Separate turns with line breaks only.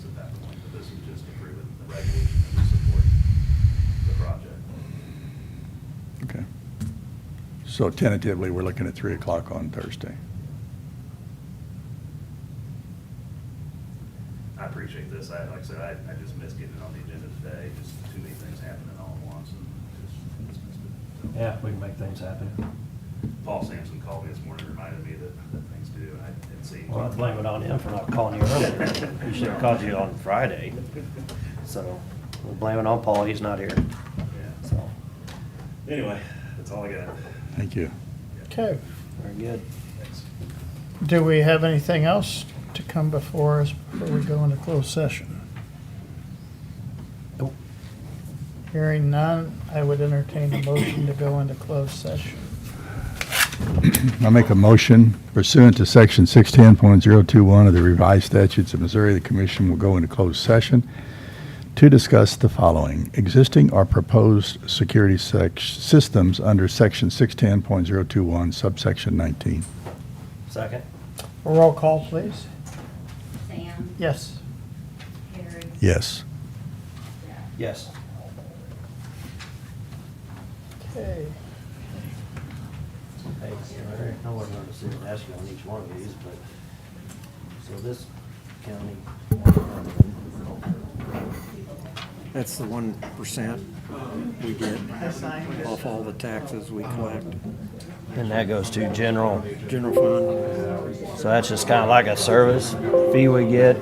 So tentatively, we're looking at 3 o'clock on Thursday.
I appreciate this. I, like I said, I, I just missed getting it on the agenda today. Just too many things happening all at once and just- just missed it. So,
Yeah, we can make things happen.
Paul Sampson called me this morning, and reminded me that, that things do, and I didn't see.
Well, I blame it on him for not calling you earlier. He should have called you on Friday. So we'll blame it on Paul, he's not here.
Yeah.
So,
Anyway, that's all I got.
Thank you.
Okay,
very good.
Thanks.
do we have anything else to come before us before we go into closed session?
Nope.
Hearing none, I would entertain a motion to go into closed session.
I make a motion pursuant to Section 610.021 of the revised statutes of Missouri, the commission will go into closed session to discuss the following: existing or proposed security sec- systems under Section 610.021 subsection 19.
Second?
Roll call, please.
Sam,
Yes.
Harry,
Yes.
Jeff.
Yes.
Okay.
Thanks. All right. I wasn't going to sit and ask you on each one of these, but, so this county.
That's the one percent we get off all the taxes we collect.
And that goes to general.
General fund,
So that's just kind of like a service fee we get